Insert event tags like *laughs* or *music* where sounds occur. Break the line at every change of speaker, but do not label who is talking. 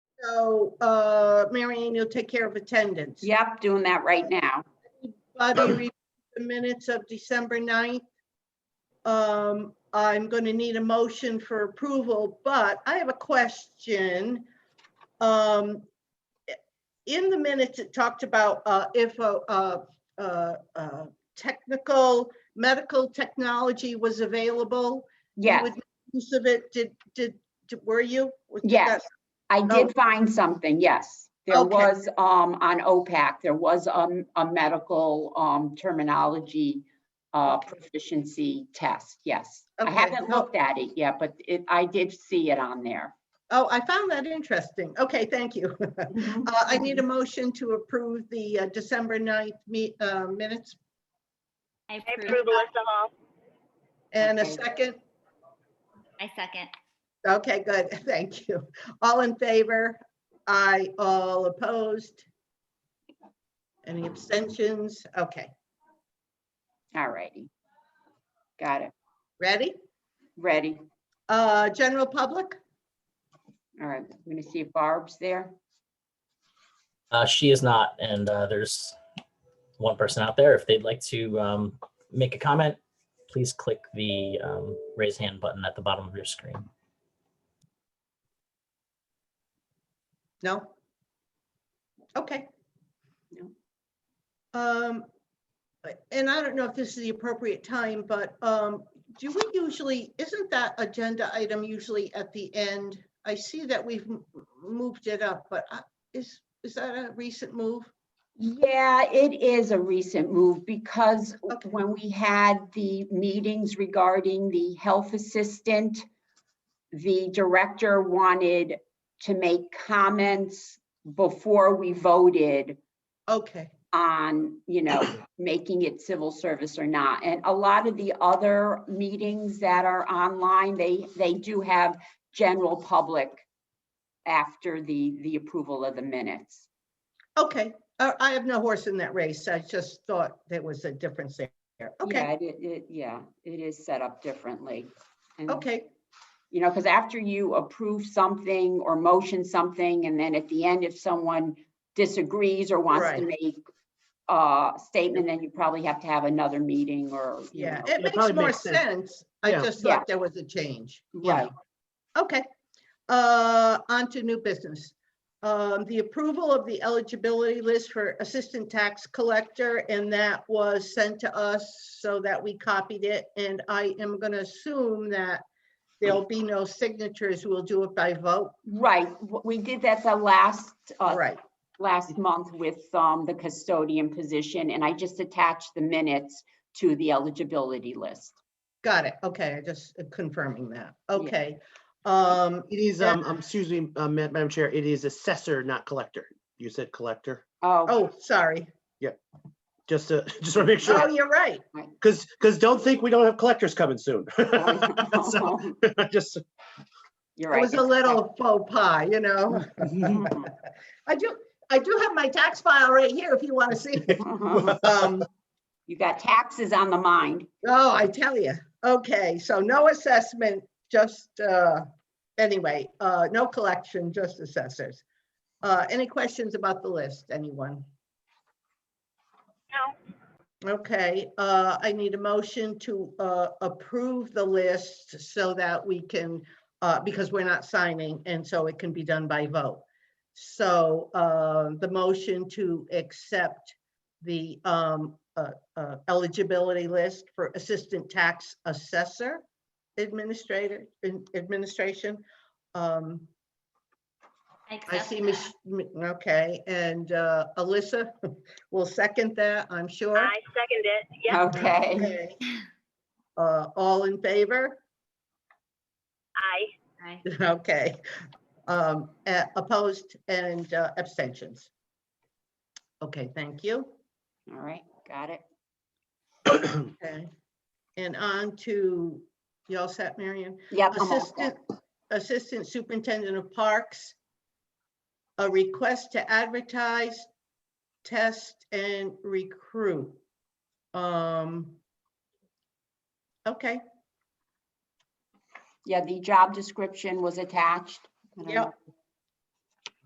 So, uh, Mary Ann, you'll take care of attendance.
Yep, doing that right now.
Bobby, read the minutes of December 9th. Um, I'm going to need a motion for approval, but I have a question. Um, In the minutes, it talked about uh, if a, a- a- a technical, medical technology was available. you
Yes,
would make Use of it, did, did, did- were you? Was- did
Yes. I
Oh.
did find something, yes. There
Okay.
was, um, on OPAC, there was, um, a medical, um, terminology, uh, proficiency test, yes. I
Okay,
haven't
no-
looked at it yet, but it, I did see it on there.
Oh, I found that interesting. Okay, thank you. *laughs*
Mhm.
Uh, I need a motion to approve the uh, December 9th me- uh, minutes
I
I
approve.
approve Alyssa Hall.
and a
Okay.
second.
I second.
Okay, good. *laughs* Thank you. All in favor? Aye. All opposed? Any abstentions? Okay,
All righty. Got it.
ready?
Ready.
Uh, General public?
All right, I'm gonna see if Barb's there.
Uh, she is not, and uh, there's one person out there. If they'd like to um, make a comment, please click the um, raise hand button at the bottom of your screen.
No? Okay.
No.
Um, and I don't know if this is the appropriate time, but, um, do we usually, isn't that agenda item usually at the end? I see that we've m- moved it up, but I- is, is that a recent move?
Yeah, it is a recent move because
Okay.
when we had the meetings regarding the health assistant, the director wanted to make comments before we voted
Okay,
on, you know, making it civil service or not. And a lot of the other meetings that are online, they, they do have general public after the, the approval of the minutes.
okay. I, I have no horse in that race. I just thought there was a difference there.
Yeah,
Okay,
it, it, yeah, it is set up differently. And,
okay,
You know, because after you approve something or motion something, and then at the end, if someone disagrees or wants to make a statement, then you probably have to have another meeting or, you
yeah.
know.
It makes
probably
more
makes sense.
sense. I
Yeah.
just
Yeah.
thought there was a change. Yeah.
Right,
Okay, uh, on to new business. Um, the approval of the eligibility list for assistant tax collector, and that was sent to us so that we copied it, and I am gonna assume that there'll be no signatures, we'll do it by vote,
right. W- We did that the last, uh,
right?
last month with, um, the custodian position, and I just attached the minutes to the eligibility list.
Got it, okay, I just uh, confirming that,
Yeah.
okay. Um,
It is,
Yeah.
um, um, excuse me, uh, Ma- Madam Chair, it is assessor, not collector. You said collector,
Oh,
oh, *laughs*
*laughs*
sorry,
just to, *laughs* just to make
oh,
sure,
you're right,
because, because don't think we don't have collectors coming soon. *laughs*
Oh,
So, *laughs* Just,
You're
it
right.
was a
*laughs*
little *laughs* faux pas, you know? I do, I do have my tax file right here if you want to see. it.
Uh-huh.
Um,
You got taxes on the mind.
oh, I tell you. Okay, so no assessment, just, uh, anyway, uh, no collection, just assessors. Uh, any questions about the list, anyone?
No,
Okay, uh, I need a motion to, uh, approve the list so that we can, uh, because we're not signing and so it can be done by vote. So, uh, the motion to accept the, um, uh, uh, eligibility list for Assistant Tax Assessor Administrator, in- Administration. Um,
I
I
accept
see,
that.
Mich- Mi- okay, and, uh, Alyssa *laughs* will second that, I'm sure.
I second it. Yeah,
Okay.
Okay. Uh, all in favor? *laughs*
I.
Aye.
Okay. Um, a- opposed and uh, abstentions? Okay, thank you.
All right, got it.
Okay. And on to, you all set, Marion?
Yep. I'm all
Assistant,
set.
Assistant Superintendent of Parks. A request to advertise, test, and recruit. Um. Okay,
Yeah, the job description was attached. I don't
Yep.
know if